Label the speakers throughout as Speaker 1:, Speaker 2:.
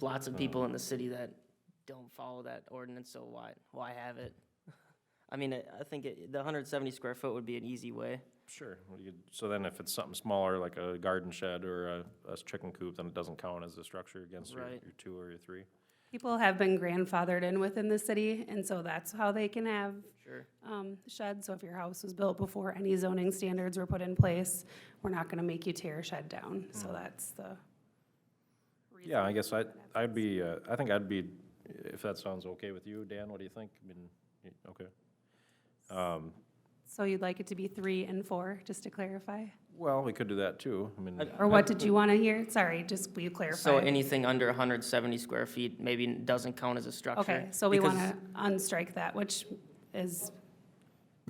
Speaker 1: lots of people in the city that don't follow that ordinance, so why, why have it? I mean, I, I think it, the hundred seventy square foot would be an easy way.
Speaker 2: Sure. we could- So then if it's something smaller, like a garden shed or a, a chicken coop, then it doesn't count as a structure against your,
Speaker 1: Right.
Speaker 2: your two or your three?
Speaker 3: People have been grandfathered in within the city, and so that's how they can have
Speaker 1: Sure.
Speaker 3: um, sheds. So if your house was built before any zoning standards were put in place, we're not gonna make you tear a shed down. So that's the
Speaker 2: Yeah, I guess I, I'd be, uh, I think I'd be, if that sounds okay with you, Dan, what do you think? I mean, y- okay. Um,
Speaker 3: So you'd like it to be three and four, just to clarify?
Speaker 2: well, we could do that too. I mean,
Speaker 3: Or what did you want to hear? Sorry, just will you clarify?
Speaker 1: So anything under hundred seventy square feet maybe doesn't count as a structure.
Speaker 3: Okay, so we
Speaker 1: because-
Speaker 3: want to unstrike that, which is,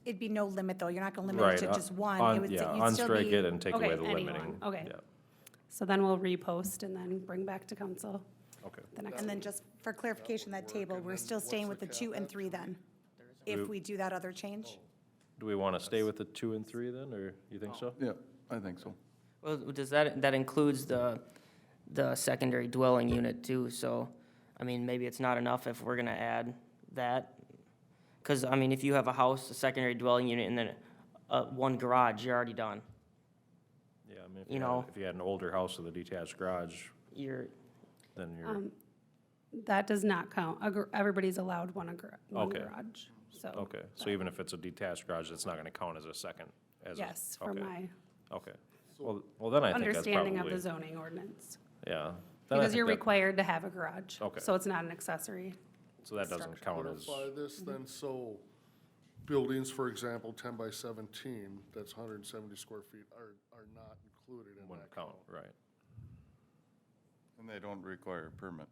Speaker 4: It'd be no limit, though. You're not going to limit
Speaker 2: right.
Speaker 4: it to
Speaker 2: uh,
Speaker 4: just one. It
Speaker 2: on-
Speaker 4: would-
Speaker 2: Yeah,
Speaker 4: you'd still
Speaker 2: unstrike
Speaker 4: be-
Speaker 2: it and take away
Speaker 3: Okay,
Speaker 2: the
Speaker 3: anyone,
Speaker 2: limiting.
Speaker 3: okay.
Speaker 2: Yeah,
Speaker 3: so then we'll repost and then bring back to council
Speaker 2: okay.
Speaker 3: the next.
Speaker 4: And then just for clarification, that table, we're still staying with the two and three then? If we do that other change?
Speaker 2: Do we want to stay with the two and three then, or you
Speaker 4: Oh.
Speaker 2: think so?
Speaker 5: Yeah, I think so.
Speaker 1: Well, does that, that includes the, the secondary dwelling unit too, so, I mean, maybe it's not enough if we're gonna add that. Cause, I mean, if you have a house, a secondary dwelling unit, and then, uh, one garage, you're already done.
Speaker 2: Yeah, I mean, if
Speaker 1: You
Speaker 2: you
Speaker 1: know.
Speaker 2: had, if you had an older house with a detached garage,
Speaker 1: You're,
Speaker 2: then
Speaker 4: Um,
Speaker 2: you're,
Speaker 3: That does not count. A gar- Everybody's allowed one a gar- one
Speaker 2: Okay.
Speaker 3: garage, so,
Speaker 2: okay. So even if it's a detached garage, it's not going to count as a second, as a.
Speaker 3: yes, for
Speaker 2: okay,
Speaker 3: my
Speaker 2: Okay. Well, well, then I think that's
Speaker 3: understanding of the
Speaker 2: probably,
Speaker 3: zoning ordinance.
Speaker 2: yeah. Then I
Speaker 3: Because
Speaker 2: think
Speaker 3: you're
Speaker 2: that-
Speaker 3: required to have a garage.
Speaker 2: Okay.
Speaker 3: So it's not an accessory.
Speaker 2: So that doesn't count as,
Speaker 6: Clarify this then, so buildings, for example, ten by seventeen, that's hundred and seventy square feet, are, are not included in
Speaker 2: wouldn't
Speaker 6: that.
Speaker 2: count, right?
Speaker 5: And they don't require a permit.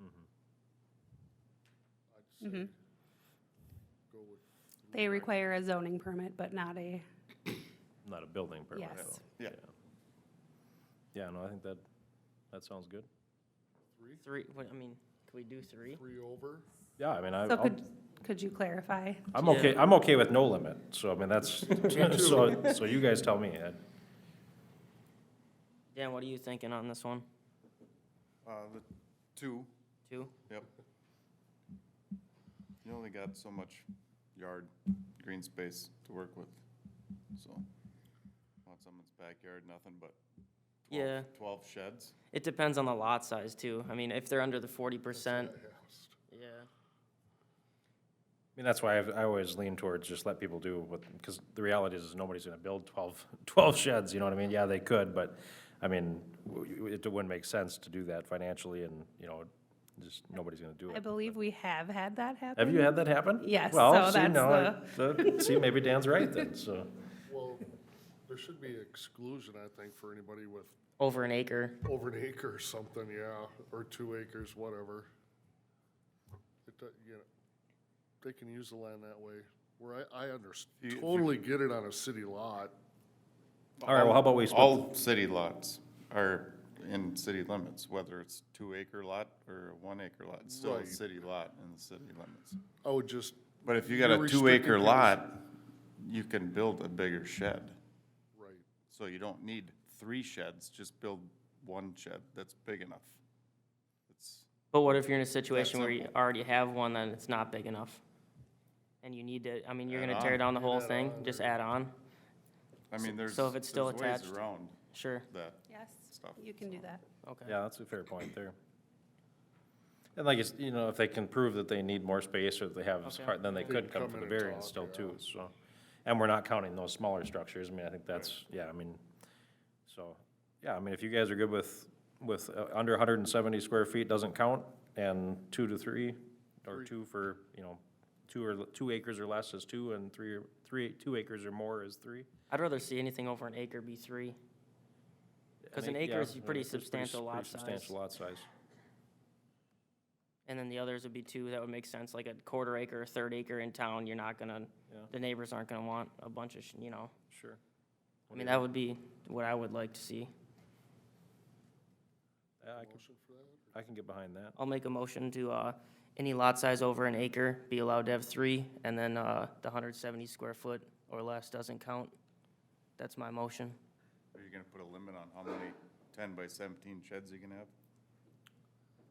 Speaker 6: I'd say Go with
Speaker 3: They require a zoning permit, but not a,
Speaker 2: Not a building permit.
Speaker 3: Yes.
Speaker 2: so,
Speaker 5: Yeah.
Speaker 2: Yeah, no, I think that, that sounds good.
Speaker 1: three, what, I mean, can we do three?
Speaker 6: three over,
Speaker 2: Yeah, I mean, I,
Speaker 3: so
Speaker 2: I'll-
Speaker 3: could, could you clarify?
Speaker 2: I'm okay, I'm okay with no limit, so I mean, that's, so, so you guys tell me. I-
Speaker 1: Dan, what are you thinking on this one?
Speaker 5: Uh, the two,
Speaker 1: Two?
Speaker 5: yep. You only got so much yard, green space to work with, so. Want someone's backyard, nothing but
Speaker 1: Yeah,
Speaker 5: twelve, twelve sheds?
Speaker 1: it depends on the lot size too. I mean, if they're under the forty percent, yeah.
Speaker 2: I mean, that's why I've, I always lean towards just let people do what, because the reality is, is nobody's gonna build 12 12 sheds, you know what I mean? Yeah, they could, but, I mean, w- it wouldn't make sense to do that financially and, you know, just, nobody's gonna do
Speaker 3: I
Speaker 2: it.
Speaker 3: believe we have had that happen.
Speaker 2: Have you had that happen?
Speaker 3: Yes,
Speaker 2: Well,
Speaker 3: so
Speaker 2: see,
Speaker 3: that's
Speaker 2: now I- that- See, maybe Dan's right then, so,
Speaker 6: well, there should be exclusion, I think, for anybody with
Speaker 1: Over an acre,
Speaker 6: over an acre or something, yeah, or two acres, whatever. It, do- you know, they can use the land that way, where I, I
Speaker 5: If
Speaker 6: understand,
Speaker 5: you-
Speaker 6: totally get it on a city lot,
Speaker 2: all right, well, how about we split
Speaker 5: All city lots are in city limits, whether it's two acre lot or a one acre lot, it's still a
Speaker 6: Right.
Speaker 5: city lot in the city limits.
Speaker 6: I would just,
Speaker 5: But if you got
Speaker 6: You're
Speaker 5: a two acre
Speaker 6: restricting things.
Speaker 5: lot, you can build a bigger shed.
Speaker 6: right,
Speaker 5: So you don't need three sheds, just build one shed that's big enough. It's,
Speaker 1: But what if you're in a situation where you already have one, then it's not big enough? And you need to, I mean, you're
Speaker 5: Add
Speaker 1: gonna tear
Speaker 5: on.
Speaker 1: down the whole thing, just add on?
Speaker 5: I mean, there's,
Speaker 1: so if it's
Speaker 5: there's
Speaker 1: still
Speaker 5: ways
Speaker 1: attached-
Speaker 5: around
Speaker 1: Sure,
Speaker 5: that
Speaker 3: Yes,
Speaker 5: stuff.
Speaker 3: you can do that.
Speaker 1: okay.
Speaker 2: Yeah, that's a fair point there. And like, it's- you know, if they can prove that they need more space or if they have, s-
Speaker 1: Okay.
Speaker 2: part- then they could come
Speaker 6: come
Speaker 2: for the
Speaker 6: in and
Speaker 2: variance still
Speaker 6: talk,
Speaker 2: too, so. And we're not counting those smaller structures. I mean, I think that's, yeah, I mean, so, yeah, I mean, if you guys are good with, with uh, under hundred and seventy square feet doesn't count and two to three, or two for, you know, two or, l- two acres or less is two and three, or- three, two acres or more is three.
Speaker 1: I'd rather see anything over an acre be three. Cause an acre
Speaker 2: yeah,
Speaker 1: is a
Speaker 2: an
Speaker 1: pretty
Speaker 2: acre's
Speaker 1: substantial
Speaker 2: pretty
Speaker 1: lot size.
Speaker 2: Substantial lot size.
Speaker 1: And then the others would be two, that would make sense, like a quarter acre, a third acre in town, you're not gonna,
Speaker 2: Yeah.
Speaker 1: the neighbors aren't gonna want a bunch of, sh- you know.
Speaker 2: Sure.
Speaker 1: I mean, that would be what I would like to see.
Speaker 2: Yeah, I can, I can get behind that.
Speaker 1: I'll make a motion to, uh, any lot size over an acre be allowed to have three, and then, uh, the hundred seventy square foot or less doesn't count. That's my motion.
Speaker 5: Are you gonna put a limit on how many ten by seventeen sheds you can have?